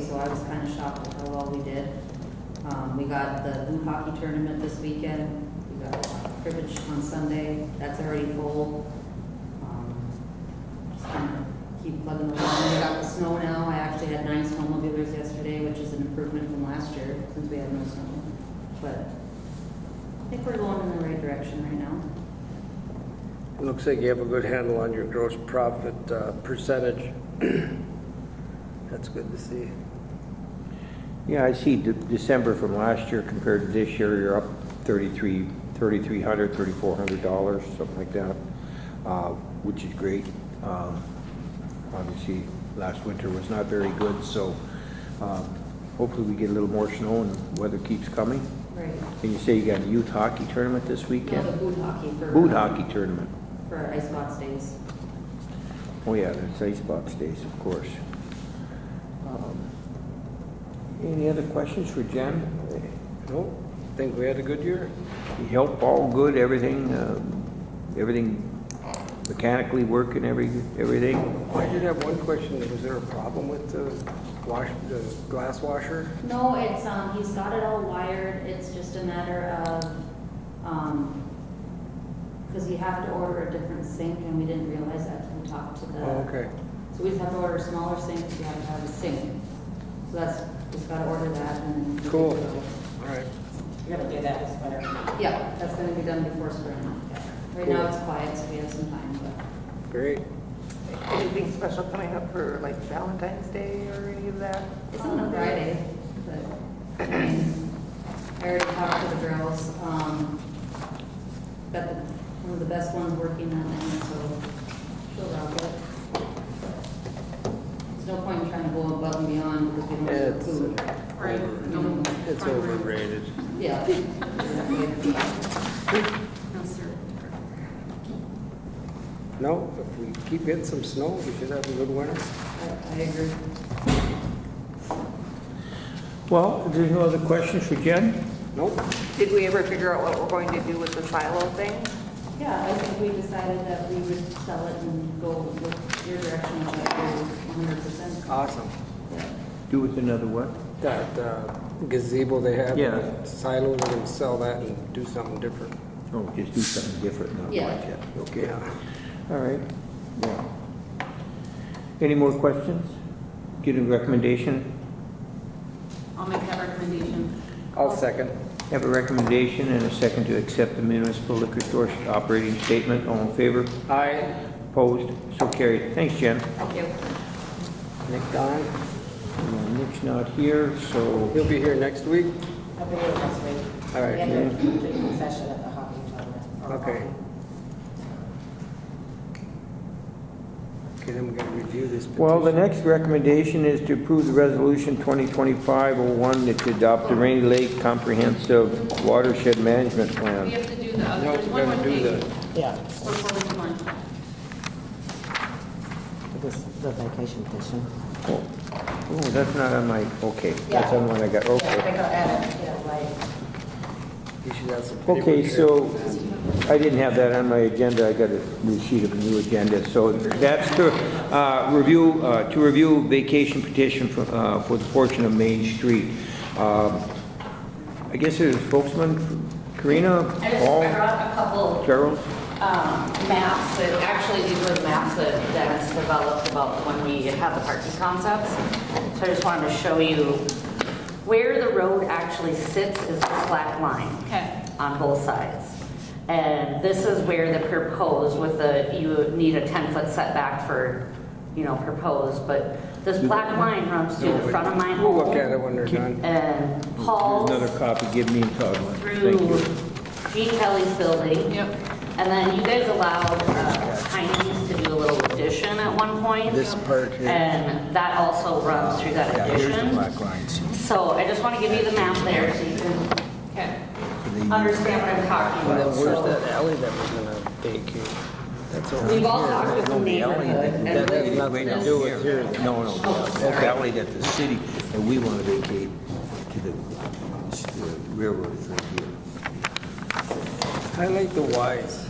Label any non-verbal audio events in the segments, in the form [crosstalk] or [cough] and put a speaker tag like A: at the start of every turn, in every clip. A: so I was kind of shocked with how well we did. Um, we got the blue hockey tournament this weekend, we got cribbage on Sunday, that's already full. Um, Just kind of keep plugging along, we got the snow now, I actually had nine snowmobilers yesterday, which is an improvement from last year, since we had no snow. But I think we're going in the right direction right now.
B: Looks like you have a good handle on your gross profit uh, percentage. [clears throat] That's good to see.
C: Yeah, I see De- December from last year compared to this year, you're up 33, 3,300, 3,400 dollars, something like that, uh, which is great. Um, Obviously, last winter was not very good, so um, hopefully we get a little more snow and weather keeps coming.
A: Right.
C: And you say you got a youth hockey tournament this
A: No, the
C: weekend?
A: boot hockey for.
C: Boot hockey tournament.
A: For our ice box days.
C: Oh, yeah, there's icebox days, of course. Um, Any other questions for Jen?
B: Nope, think we had a good year?
C: help all good, everything, uh, everything mechanically working, every, everything.
B: I did have one question, was there a problem with the wash, the glass washer?
A: No, it's, um, he's got it all wired, it's just a matter of, um, because you have to order a different sink, and we didn't realize that until we talked to the.
B: Oh, okay.
A: So we just have to order a smaller sink, because you have to have a sink. So that's, just gotta order that and. then-
B: Cool, all right.
D: You're gonna do that this winter.
A: Yeah, that's gonna be done before spring. Right now,
B: Cool.
A: it's quiet, so we have some time, but
B: Great.
E: Anything special coming up for like Valentine's Day or any of that?
A: it's on a Friday, but, I mean, I already talked to the girls, um, got the, one of the best ones working on it, so she'll rock it. There's no point in trying to go above and beyond because we don't have the
B: It's,
A: food.
B: uh, it's overrated.
A: Yeah.
B: No, if we keep getting some snow, we should have a good winter.
A: I, I agree.
C: Well, if there's no other questions for Jen?
B: Nope,
E: Did we ever figure out what we're going to do with the silo thing?
A: Yeah, I think we decided that we would sell it and go with your direction, which I agree one hundred percent.
B: awesome.
C: Do with another what?
B: That uh, gazebo they have,
C: Yeah.
B: silo, we're gonna sell that and do something different.
C: Oh, just do something different, not
A: Yeah.
C: like that. Okay,
B: Yeah.
C: all right, yeah. Any more questions? Get a recommendation,
D: I'll make that recommendation.
B: I'll second.
C: have a recommendation and a second to accept the municipal liquor store operating statement. All in favor?
B: Aye.
C: Opposed? So carried. Thanks, Jen.
A: Thank you.
B: Nick Don,
C: Uh, Nick's not here, so
B: he'll be here next week.
D: I'll be here next week.
B: All right.
D: We have a complete session at the hockey tournament. or
B: Okay.
D: hockey.
B: Okay, then we're gonna review this petition.
C: Well, the next recommendation is to approve the resolution 2025-01 that to adopt the Rainy Lake Comprehensive Watershed Management
F: We
C: Plan.
F: have to do the other,
B: No,
F: there's
B: we're
F: one more
B: gonna do
F: thing.
B: the,
F: Before we come on.
D: This, the vacation petition.
C: Oh, oh, that's not on my, okay, that's
D: Yeah.
C: on one I got,
D: Yeah, I
C: okay.
D: think I'll add it, yeah, right.
B: you should have some paper
C: Okay,
B: here.
C: so I didn't have that on my agenda, I got a new sheet of a new agenda. So that's to uh, review, uh, to review vacation petition for uh, for the portion of Main Street. Um, I guess there's spokesman, Karina,
D: I just
C: Paul,
D: brought a couple
C: Charles?
D: um, maps that, actually, these were the maps that Dennis developed about when we had the parking concepts. So I just wanted to show you where the road actually sits is this black line.
F: Okay.
D: On both sides. And this is where the proposed with the, you need a 10-foot setback for, you know, proposed, but this black line runs through the front of my home.
B: We'll look at it when they're done.
D: And
C: There's
D: Paul's
C: another copy, give me and Todd one.
D: through
C: Thank you.
D: Gene Kelly's building.
F: Yep.
D: And then you guys allowed uh, Chinese to do a little addition at one point.
B: This part here.
D: And that also runs through that
B: Yeah, here's the
D: addition.
B: black lines.
D: So I just want to give you the map there so you can
F: Okay.
D: understand what I'm
B: And
D: talking
B: then
A: uh,
D: about.
B: where's
D: So
B: that alley that we're gonna vacate? That's over
D: We've all
B: here.
D: talked with the neighborhood
B: That
D: and
B: has nothing to do with here.
C: No, no, the alley that the city, that we want to vacate to the the railroad is right here.
B: Highlight the Ys.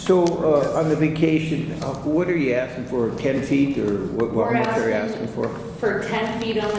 C: So uh, on the vacation, uh, what are you asking for, 10 feet or what
D: We're
C: what much are you asking
D: asking-
C: for?
A: for 10 feet on the